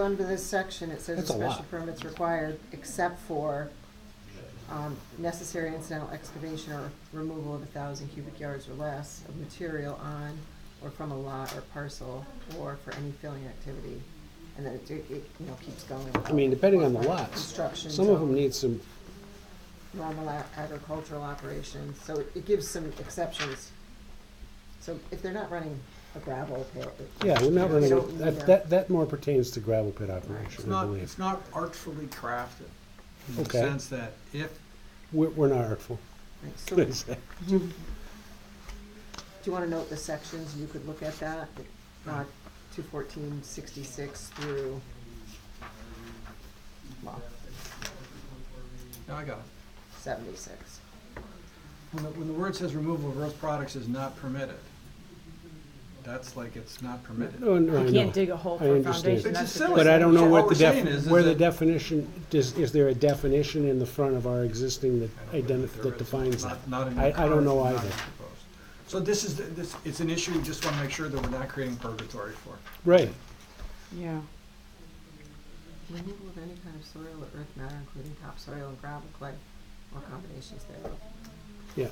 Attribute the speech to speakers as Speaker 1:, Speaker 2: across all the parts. Speaker 1: Under this section, it says a
Speaker 2: That's a
Speaker 1: special
Speaker 2: lot.
Speaker 1: permit's required except for um, necessary incidental excavation or removal of a thousand cubic yards or less of material on or from a lot or parcel or for any filling activity. And then it, it, it, you know, keeps going.
Speaker 2: I mean, depending on the lots,
Speaker 1: Construction.
Speaker 2: some of
Speaker 1: so-
Speaker 2: them need some,
Speaker 1: normal a- agricultural operations, so it- it gives some exceptions. So if they're not running a gravel pit. it-
Speaker 2: yeah, we're not
Speaker 1: they
Speaker 2: running,
Speaker 1: don't need
Speaker 2: that,
Speaker 1: a-
Speaker 2: that, that more pertains to gravel pit
Speaker 3: It's
Speaker 2: operation, I
Speaker 3: not,
Speaker 2: believe.
Speaker 3: it's not artfully crafted, in the
Speaker 2: Okay.
Speaker 3: sense that if,
Speaker 2: We're, we're not artful.
Speaker 1: right, So do you wanna note the sections, you could look at that, uh, two fourteen sixty-six through. Well,
Speaker 3: no, I got it.
Speaker 1: seventy-six,
Speaker 3: When the, when the word says removal of earth products is not permitted, that's like it's not permitted.
Speaker 2: No, Oh, no, I
Speaker 4: You can't
Speaker 2: know.
Speaker 4: dig a hole
Speaker 2: I
Speaker 4: for a
Speaker 2: understand.
Speaker 4: foundation.
Speaker 3: Which
Speaker 4: that's
Speaker 3: is
Speaker 4: the
Speaker 3: silly.
Speaker 2: But I don't know
Speaker 3: So
Speaker 2: what
Speaker 3: all
Speaker 2: the
Speaker 3: we're saying
Speaker 2: def,
Speaker 3: is- is
Speaker 2: where the
Speaker 3: that-
Speaker 2: definition, is, is there a definition in the front of our existing that
Speaker 3: I don't know if
Speaker 2: identif,
Speaker 3: there
Speaker 2: that
Speaker 3: is,
Speaker 2: defines that?
Speaker 3: not- not in the
Speaker 2: I- I don't
Speaker 3: current-
Speaker 2: know
Speaker 3: not
Speaker 2: either.
Speaker 3: in proposed. So this is, the- this, it's an issue, we just wanna make sure that we're not creating purgatory for.
Speaker 2: Right,
Speaker 4: Yeah.
Speaker 1: removal of any kind of soil or earth matter, including topsoil and gravel clay, or combinations thereof.
Speaker 2: yeah.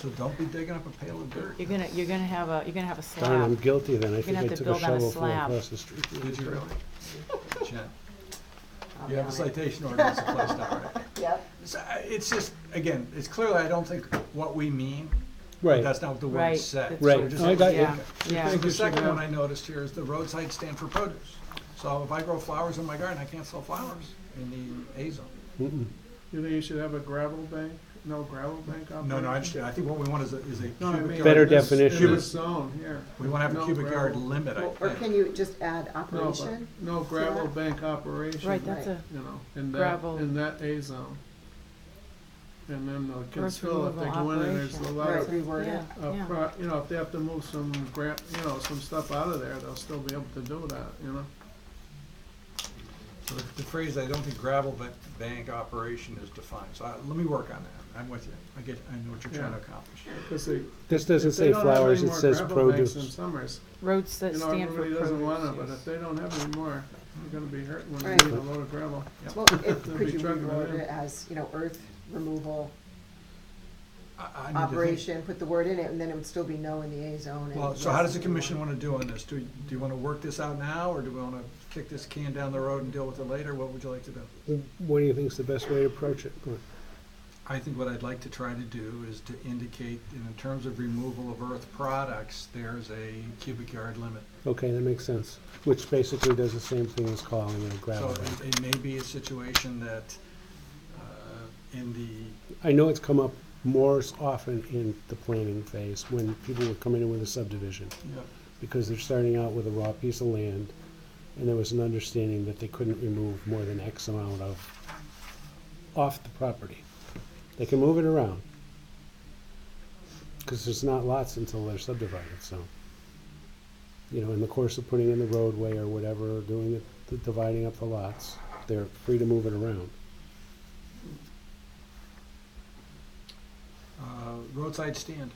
Speaker 3: So don't be digging up a pail of dirt.
Speaker 4: You're gonna, you're gonna have a, you're gonna have a
Speaker 2: Darn, I'm
Speaker 4: slab.
Speaker 2: guilty then. I think
Speaker 4: gonna
Speaker 2: I
Speaker 4: have to
Speaker 2: took a
Speaker 4: build on a
Speaker 2: shovel from
Speaker 4: slab.
Speaker 2: across the street.
Speaker 3: Did you really? Jen,
Speaker 1: I'll be
Speaker 3: you have a
Speaker 1: honest.
Speaker 3: citation ordinance in place now, right?
Speaker 1: Yep,
Speaker 3: So, I- It's just, again, it's clearly, I don't think what we mean, but
Speaker 2: Right,
Speaker 3: that's not what the word
Speaker 4: Right,
Speaker 3: said.
Speaker 4: that's
Speaker 2: Right.
Speaker 3: So just-
Speaker 2: No, I got you.
Speaker 4: Yeah,
Speaker 3: So
Speaker 4: yeah.
Speaker 3: The second one I noticed here is the roadside stand for produce. So if I grow flowers in my garden, I can't sell flowers in the A zone.
Speaker 2: Mm-mm.
Speaker 5: You think you should have a gravel bank? No gravel bank operation?
Speaker 3: No, no, I understand. I think what we want is a, is a
Speaker 5: No, I mean.
Speaker 3: cubic
Speaker 2: Better
Speaker 3: yard.
Speaker 5: in this-
Speaker 2: definition.
Speaker 5: In this zone here.
Speaker 3: We want to have a
Speaker 5: No
Speaker 3: cubic yard
Speaker 5: gravel-
Speaker 3: limit, I
Speaker 1: Well, or can
Speaker 3: think.
Speaker 1: you just add
Speaker 5: No, but,
Speaker 1: operation?
Speaker 5: no gravel bank operation.
Speaker 4: Right, that's a,
Speaker 5: You know, in that,
Speaker 4: Gravel.
Speaker 5: in that A zone. And then the kids
Speaker 4: Earth
Speaker 5: feel if they
Speaker 4: removal
Speaker 5: go in and there's a
Speaker 4: operation.
Speaker 5: lot
Speaker 1: Right,
Speaker 5: of,
Speaker 1: reword
Speaker 4: yeah,
Speaker 1: it.
Speaker 5: uh,
Speaker 4: yeah.
Speaker 5: pro- you know, if they have to move some gra, you know, some stuff out of there, they'll still be able to do that, you know?
Speaker 3: So the the phrase, I don't think gravel ba- bank operation is defined. So I- let me work on that. I'm with you. I get, I know what you're trying to
Speaker 5: Yeah.
Speaker 3: accomplish.
Speaker 5: Cause they.
Speaker 2: This
Speaker 5: if
Speaker 2: doesn't
Speaker 5: they
Speaker 2: say
Speaker 5: don't have
Speaker 2: flowers,
Speaker 5: any
Speaker 2: it
Speaker 5: more
Speaker 2: says
Speaker 5: gravel banks In
Speaker 2: produce.
Speaker 5: summers,
Speaker 4: Roads that
Speaker 5: you know,
Speaker 4: stand for
Speaker 5: everybody doesn't want them, but
Speaker 4: produce.
Speaker 5: if they don't have any more, you're gonna be hurt when you
Speaker 1: Right.
Speaker 5: need a load of gravel.
Speaker 1: Well, it,
Speaker 5: They'll
Speaker 1: could
Speaker 5: be
Speaker 1: you
Speaker 5: trucking it
Speaker 1: reword
Speaker 5: in.
Speaker 1: it as, you know, earth removal
Speaker 3: I- I need to think.
Speaker 1: operation, put the word in it, and then it would still be no in the A zone. and
Speaker 3: Well, so how
Speaker 1: yes
Speaker 3: does the
Speaker 1: in
Speaker 3: commission
Speaker 1: one.
Speaker 3: want to do on this? Do, do you want to work this out now, or do we want to kick this can down the road and deal with it later? What would you like to do?
Speaker 2: What do you think is the best way to approach it?
Speaker 3: I think what I'd like to try to do is to indicate, in terms of removal of earth products, there's a cubic yard limit.
Speaker 2: Okay, that makes sense, which basically does the same thing as calling it a
Speaker 3: So
Speaker 2: gravel bank.
Speaker 3: it- it may be a situation that, uh, in the,
Speaker 2: I know it's come up more s- often in the planning phase, when people were coming in with a subdivision, because they're starting out with a raw piece of land, and there was an understanding that they couldn't remove more than X amount of, off the property. They can move it around, because there's not lots until they're subdivided, so. You know, in the course of putting in the roadway or whatever, or doing the- the, dividing up the lots, they're free to move it around.
Speaker 3: uh, roadside stand.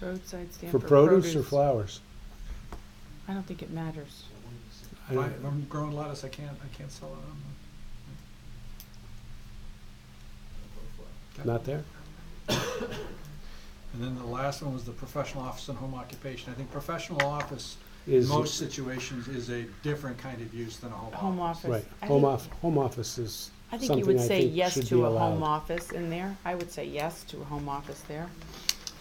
Speaker 4: Roadside stand
Speaker 2: For produce or flowers?
Speaker 4: I don't think it matters.
Speaker 2: I
Speaker 3: If I-
Speaker 2: don't-
Speaker 3: if I'm growing lettuce, I can't, I can't sell it.
Speaker 2: Not there?
Speaker 3: And then the last one was the professional office and home occupation. I think professional office, in
Speaker 2: Is,
Speaker 3: most situations, is a different kind of use than a home office.
Speaker 4: Home office.
Speaker 2: right,
Speaker 4: I
Speaker 2: home
Speaker 4: think-
Speaker 2: off, home office is
Speaker 4: I think you
Speaker 2: something
Speaker 4: would
Speaker 2: I
Speaker 4: say
Speaker 2: think
Speaker 4: yes
Speaker 2: should be
Speaker 4: to a home
Speaker 2: allowed.
Speaker 4: office in there. I would say yes to a home office there.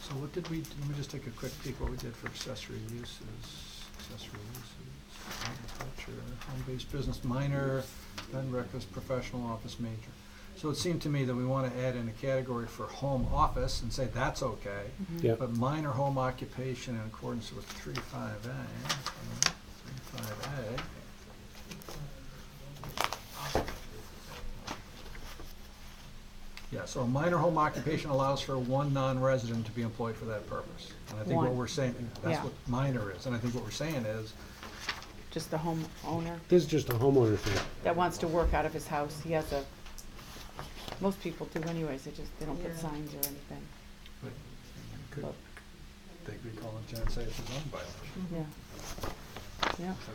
Speaker 3: So what did we, let me just take a quick peek what we did for accessory uses, accessory uses, agriculture, home-based business minor, then breakfast, professional office major. So it seemed to me that we want to add in a category for home office and say that's okay,
Speaker 2: Yep,
Speaker 3: but minor home occupation in accordance with three five A, three five A. Yeah, so a minor home occupation allows for one non-resident to be employed for that purpose. And I think what
Speaker 4: One.
Speaker 3: we're saying, that's
Speaker 4: Yeah.
Speaker 3: what minor is, and I think what we're saying is,
Speaker 4: Just the homeowner
Speaker 2: this is just a homeowner thing.
Speaker 4: that wants to work out of his house. He has a, most people do anyways. They just, they don't put
Speaker 1: Yeah.
Speaker 4: signs or anything. Mm-hmm.
Speaker 3: could, they could call it, Jen, say it's a zoning violation.
Speaker 4: Yeah. yeah.